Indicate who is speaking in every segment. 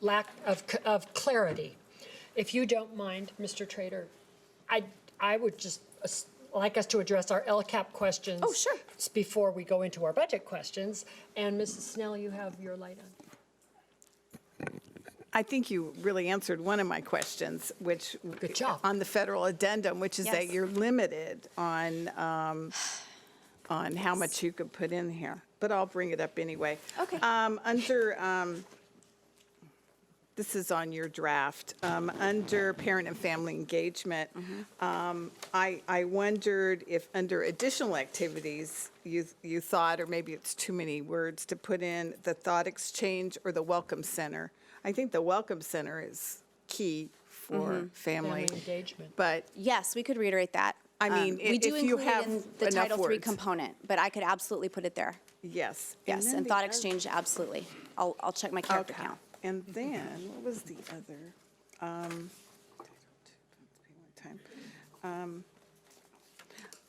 Speaker 1: lack of, c- of clarity. If you don't mind, Mr. Trader, I, I would just as- like us to address our LCAP questions.
Speaker 2: Oh, sure.
Speaker 1: s- Before we go into our budget questions. And Mrs. Snell, you have your light on.
Speaker 3: I think you really answered one of my questions, which.
Speaker 1: Good job.
Speaker 3: On the federal addendum, which is that
Speaker 2: Yes.
Speaker 3: you're limited on, um, on how much you could put in here. But I'll bring it up anyway.
Speaker 2: Okay.
Speaker 3: Um, Under, um, this is on your draft, um, under parent and family engagement. um, I, I wondered if under additional activities, you, you thought, or maybe it's too many words, to put in the thought exchange or the welcome center. I think the welcome center is key for
Speaker 1: Family
Speaker 3: family.
Speaker 1: engagement.
Speaker 3: But
Speaker 2: Yes, we could reiterate that.
Speaker 3: I
Speaker 2: Um,
Speaker 3: mean, i-
Speaker 2: We do
Speaker 3: if you
Speaker 2: include it
Speaker 3: have
Speaker 2: in the
Speaker 3: enough
Speaker 2: Title III
Speaker 3: words.
Speaker 2: component, but I could absolutely put it there.
Speaker 3: yes.
Speaker 2: Yes,
Speaker 3: then
Speaker 2: and
Speaker 3: the
Speaker 2: thought
Speaker 3: oth-
Speaker 2: exchange, Mm-hmm. absolutely. I'll, I'll check my character
Speaker 3: Okay.
Speaker 2: count.
Speaker 3: And then, what was the other? Um, time. Um,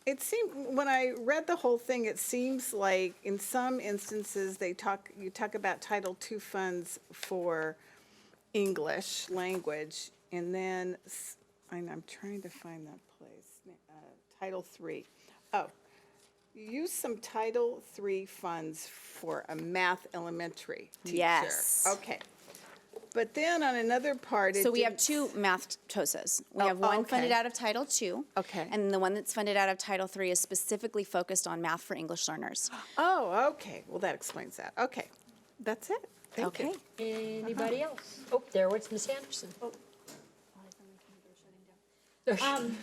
Speaker 3: It seemed, when I read the whole thing, it seems like in some instances, they talk, you talk about Title II funds for English language, and then, s- and I'm trying to find that place, uh, Title III. Oh, use some Title III funds for a math elementary teacher.
Speaker 2: Yes.
Speaker 3: Okay. But then on another part, it
Speaker 2: So we have
Speaker 3: didn't-
Speaker 2: two math TOSAs. We
Speaker 3: Oh,
Speaker 2: have one funded
Speaker 3: okay.
Speaker 2: out of Title II.
Speaker 3: Okay.
Speaker 2: And the one that's funded out of Title III is specifically focused on math for English learners.
Speaker 3: Oh, okay. Well, that explains that. Okay. That's it. Thank you.
Speaker 2: Okay.
Speaker 1: Anybody else? Oh, there was Miss Anderson.
Speaker 4: Um,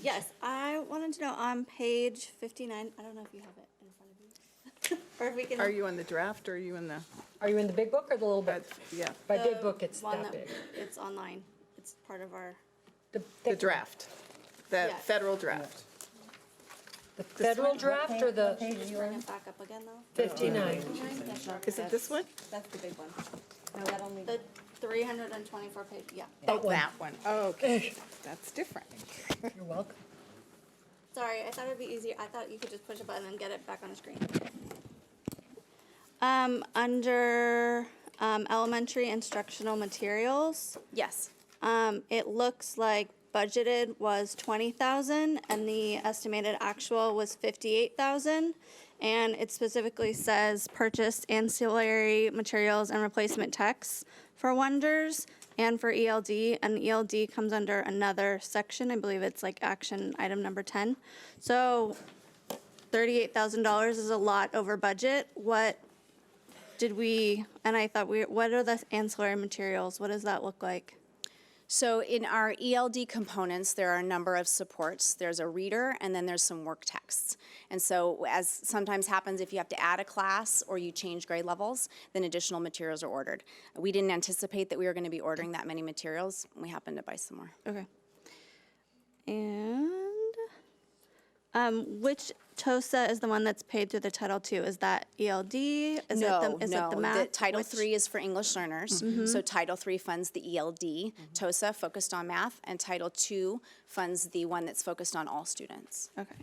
Speaker 4: yes, I wanted to know on page fifty-nine, I don't know if you have it in front of you. Or if we can.
Speaker 3: Are you in the draft or are you in the,
Speaker 1: Are you in the big book or the little book?
Speaker 3: That's- yeah.
Speaker 1: By big
Speaker 4: the
Speaker 1: book, it's
Speaker 4: one
Speaker 1: that big.
Speaker 4: It's online. It's part of our,
Speaker 1: The
Speaker 3: the
Speaker 1: thick-
Speaker 3: draft? The
Speaker 4: Yeah.
Speaker 3: federal draft?
Speaker 1: The federal draft or the
Speaker 4: should we bring it back up again though?
Speaker 1: 59?
Speaker 3: Is it this one?
Speaker 4: That's the big one. No, that only. The three hundred and twenty-four page, yeah.
Speaker 1: That one.
Speaker 3: one. Oh, okay. That's different.
Speaker 1: You're welcome.
Speaker 4: Sorry, I thought it'd be easier. I thought you could just push a button and get it back on the screen. Um, under, um, elementary instructional materials.
Speaker 2: Yes.
Speaker 4: Um, it looks like budgeted was twenty thousand and the estimated actual was fifty-eight thousand. And it specifically says purchased ancillary materials and replacement texts for Wonders and for ELD. And ELD comes under another section. I believe it's like action item number ten. So thirty-eight thousand dollars is a lot over budget. What did we, and I thought we, what are the ancillary materials? What does that look like?
Speaker 2: So in our ELD components, there are a number of supports. There's a reader, and then there's some work texts. And so as sometimes happens, if you have to add a class or you change grade levels, then additional materials are ordered. We didn't anticipate that we were going to be ordering that many materials. and We happened to buy some more.
Speaker 4: Okay. And um, which TOSA is the one that's paid through the Title II? Is that ELD? Is
Speaker 2: no,
Speaker 4: it the, is
Speaker 2: no.
Speaker 4: it the
Speaker 2: The
Speaker 4: math?
Speaker 2: Title
Speaker 4: Which- Mm-hmm.
Speaker 2: III is for English learners. So Title III funds the ELD, TOSA focused on math, and Title II funds the one that's focused on all students.
Speaker 4: Okay.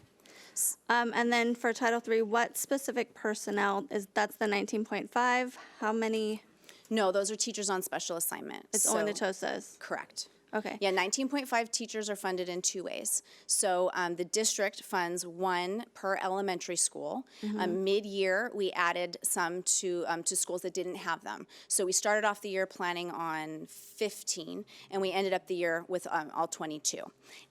Speaker 4: Um, and then for Title III, what specific personnel is that's the 19.5? How many?
Speaker 2: No, those are teachers on special assignment.
Speaker 4: It's only the
Speaker 2: So-
Speaker 4: TOSAs.
Speaker 2: Correct.
Speaker 4: Okay.
Speaker 2: Yeah, 19.5 teachers are funded in two ways. So um, the district funds one per elementary school. Um, mid-year, we added some to um, to schools that didn't have them. So we started off the year planning on 15, and we ended up the year with um, all 22.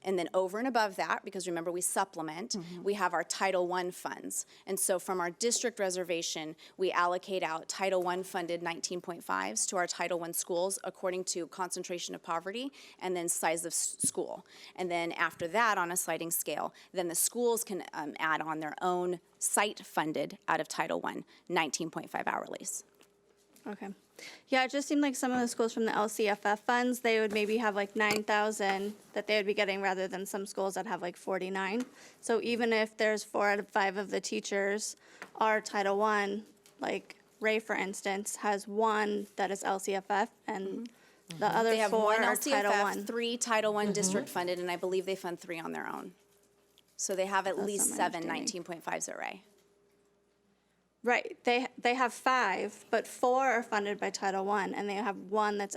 Speaker 2: And then over and above that, because remember we supplement, we have our Title I funds. And so from our district reservation, we allocate out Title I funded 19.5s to our Title I schools according to concentration of poverty and then size of s- school. And then after that, on a sliding scale, then the schools can um, add on their own site funded out of Title I, 19.5 hourlies.
Speaker 4: Okay. Yeah, it just seemed like some of the schools from the LCFF funds, they would maybe have like nine thousand that they would be getting rather than some schools that have like forty-nine. So even if there's four out of five of the teachers are Title One, like Ray, for instance, has one that is LCFF and the
Speaker 2: Mm-hmm.
Speaker 4: other
Speaker 2: They have
Speaker 4: four
Speaker 2: one
Speaker 4: are Title Mm-hmm.
Speaker 2: LCFF,
Speaker 4: One.
Speaker 2: three Title I district funded, and I believe they fund three on their own. So they have at least
Speaker 4: my
Speaker 2: seven
Speaker 4: understanding.
Speaker 2: 19.5s at Ray.
Speaker 4: Right, they, they have five, but four are funded by Title One and they have one that's